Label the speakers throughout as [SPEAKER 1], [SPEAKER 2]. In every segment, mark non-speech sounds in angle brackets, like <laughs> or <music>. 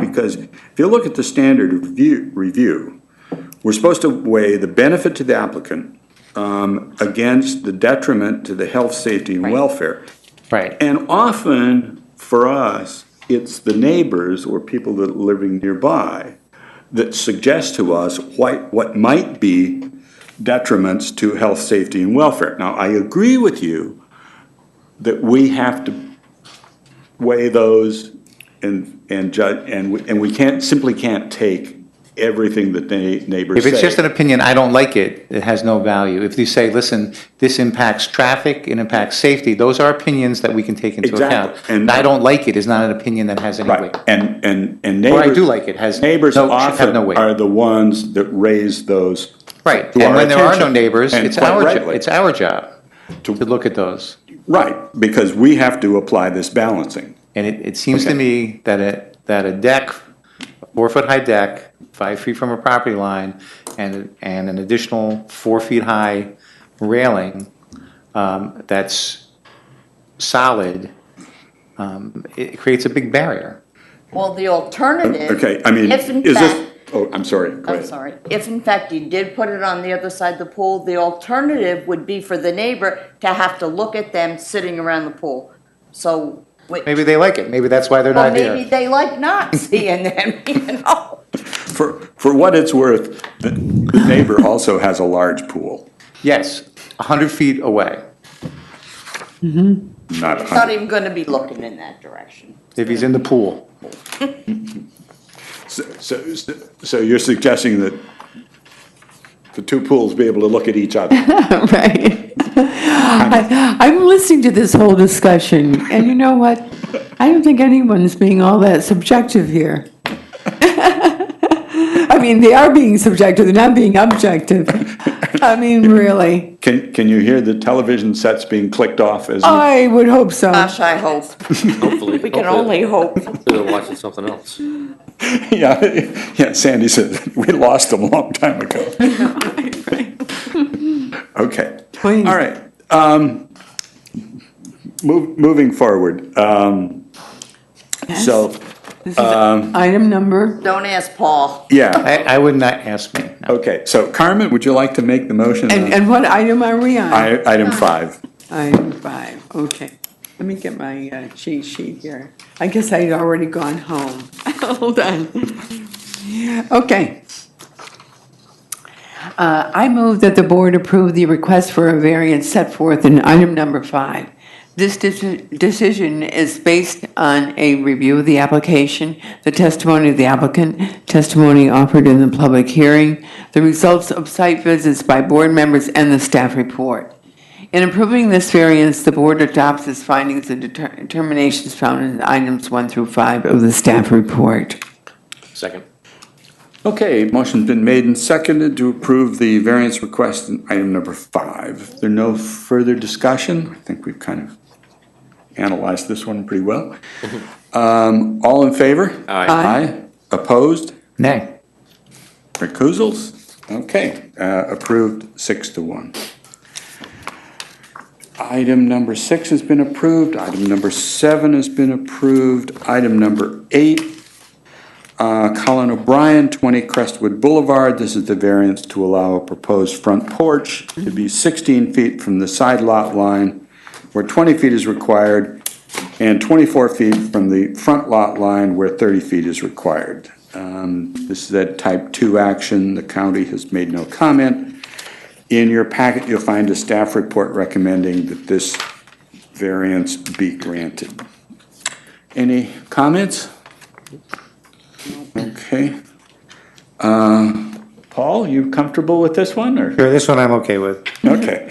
[SPEAKER 1] because if you look at the standard review, review, we're supposed to weigh the benefit to the applicant um, against the detriment to the health, safety, and
[SPEAKER 2] Right.
[SPEAKER 1] welfare.
[SPEAKER 3] Right.
[SPEAKER 1] And often, for us, it's the neighbors or people that are living nearby that suggest to us what, what might be detriments to health, safety, and welfare. Now, I agree with you that we have to weigh those and, and judge, and we, and we can't, simply can't take everything that the neighbors
[SPEAKER 3] If
[SPEAKER 1] say.
[SPEAKER 3] it's just an opinion, I don't like it, it has no value. If you say, listen, this impacts traffic, it impacts safety, those are opinions that we can take into
[SPEAKER 1] Exactly.
[SPEAKER 3] account.
[SPEAKER 1] And-
[SPEAKER 3] I don't like it is not an opinion that has any
[SPEAKER 1] Right,
[SPEAKER 3] weight.
[SPEAKER 1] and, and, and
[SPEAKER 3] Or
[SPEAKER 1] neighbors.
[SPEAKER 3] I do like it, has no, should
[SPEAKER 1] Neighbors
[SPEAKER 3] have
[SPEAKER 1] often
[SPEAKER 3] no weight.
[SPEAKER 1] are the ones that raise those.
[SPEAKER 3] Right,
[SPEAKER 1] to
[SPEAKER 3] and
[SPEAKER 1] our
[SPEAKER 3] when there are no
[SPEAKER 1] attention,
[SPEAKER 3] neighbors,
[SPEAKER 1] and
[SPEAKER 3] it's
[SPEAKER 1] quite
[SPEAKER 3] our, jo-
[SPEAKER 1] rightly.
[SPEAKER 3] it's our job to look at those.
[SPEAKER 1] Right, because we have to apply this balancing.
[SPEAKER 3] And it, it seems to me that a, that a deck, a four-foot-high deck, five feet from a property line, and, and an additional four-feet-high railing um, that's solid, um, it creates a big barrier.
[SPEAKER 2] Well, the alternative.
[SPEAKER 1] Okay, I mean,
[SPEAKER 2] If in
[SPEAKER 1] is this,
[SPEAKER 2] fact,
[SPEAKER 1] oh, I'm sorry, go
[SPEAKER 2] I'm
[SPEAKER 1] ahead.
[SPEAKER 2] sorry, if in fact you did put it on the other side of the pool, the alternative would be for the neighbor to have to look at them sitting around the pool. So, wait,
[SPEAKER 3] Maybe they like it, maybe that's why they're
[SPEAKER 2] well,
[SPEAKER 3] not
[SPEAKER 2] maybe
[SPEAKER 3] here.
[SPEAKER 2] they like not <laughs> seeing them, you know?
[SPEAKER 1] For, for what it's worth, the the neighbor also has a large pool,
[SPEAKER 3] Yes, 100 feet away.
[SPEAKER 1] not a
[SPEAKER 2] It's not
[SPEAKER 1] hundred.
[SPEAKER 2] even gonna be looking in that direction.
[SPEAKER 3] If he's in the pool,
[SPEAKER 1] So, so, so you're suggesting that the two pools be able to look at each
[SPEAKER 2] <laughs>
[SPEAKER 1] other?
[SPEAKER 4] <laughs> Right. I, I'm listening to this whole discussion, and you know what? I don't think anyone's being all that subjective here. <laughs> I mean, they are being subjective, they're not being objective. I mean, really.
[SPEAKER 1] Can, can you hear the television sets being clicked off as?
[SPEAKER 2] Oh.
[SPEAKER 1] we-
[SPEAKER 4] I would hope so.
[SPEAKER 1] Uh,
[SPEAKER 2] Gosh, I
[SPEAKER 3] <laughs>
[SPEAKER 2] hope.
[SPEAKER 5] Hopefully.
[SPEAKER 2] We can only hope.
[SPEAKER 5] They're watching something else.
[SPEAKER 1] <laughs> Yeah, yeah, Sandy said, we lost them a long time
[SPEAKER 2] <laughs>
[SPEAKER 1] ago. <laughs> Okay, all
[SPEAKER 4] Please.
[SPEAKER 1] right. um, move- Moving forward, um, so,
[SPEAKER 4] This is Item number,
[SPEAKER 2] Don't ask Paul.
[SPEAKER 1] yeah,
[SPEAKER 3] I, I would not ask me. no.
[SPEAKER 1] okay, so Carmen, would you like to make the motion?
[SPEAKER 4] and,
[SPEAKER 1] on
[SPEAKER 4] and what item are we on?
[SPEAKER 1] i- Item five.
[SPEAKER 4] Item five, okay. Let me get my uh, cheat sheet here. I guess I'd already gone home. <laughs> Hold on. Okay. Uh, I move that the board approve the request for a variance set forth in item number five. This deci- decision is based on a review of the application, the testimony of the applicant, testimony offered in the public hearing, the results of site visits by board members, and the staff report. In approving this variance, the board adopts its findings and deter- determinations found in items one through five of the staff report.
[SPEAKER 5] Second.
[SPEAKER 1] Okay, motion's been made and seconded to approve the variance request in item number five. There no further discussion? I think we've kind of analyzed this one pretty well. Um, All in favor?
[SPEAKER 5] Aye.
[SPEAKER 4] Mm-hmm. Aye.
[SPEAKER 1] Opposed?
[SPEAKER 3] Nay.
[SPEAKER 1] Recusals? Okay, uh, approved six to one. Item number six has been approved. Item number seven has been approved. Item number eight, uh, Colin O'Brien, 20 Crestwood Boulevard. This is the variance to allow a proposed front porch to be 16 feet from the side lot line, where 20 feet is required, and 24 feet from the front lot line, where 30 feet is required. Um, This is a type 2 action. The county has made no comment. In your packet, you'll find a staff report recommending that this variance be granted. Any comments? Okay. Uh, Paul, you comfortable with this one, or?
[SPEAKER 3] Sure, this one I'm okay with.
[SPEAKER 1] Okay.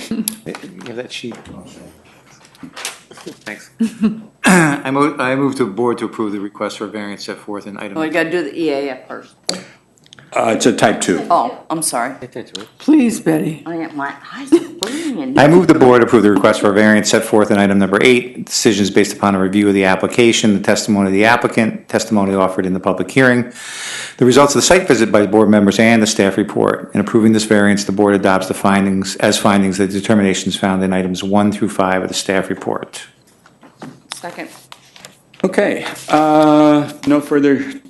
[SPEAKER 3] Give that sheet. Thanks. <coughs> I move, I move to board to approve the request for variance set forth in
[SPEAKER 2] Well, We
[SPEAKER 3] item.
[SPEAKER 2] gotta do the EAF first.
[SPEAKER 1] Uh, It's a type 2.
[SPEAKER 2] Oh, I'm sorry.
[SPEAKER 4] Please, Betty.
[SPEAKER 2] I am, my eyes are burning.
[SPEAKER 3] I move the board approve the request for variance set forth in item number eight. Decisions based upon a review of the application, the testimony of the applicant, testimony offered in the public hearing, the results of the site visit by board members and the staff report. In approving this variance, the board adopts the findings, as findings, the determinations found in items one through five of the staff report.
[SPEAKER 2] Second.
[SPEAKER 1] Okay. uh, No further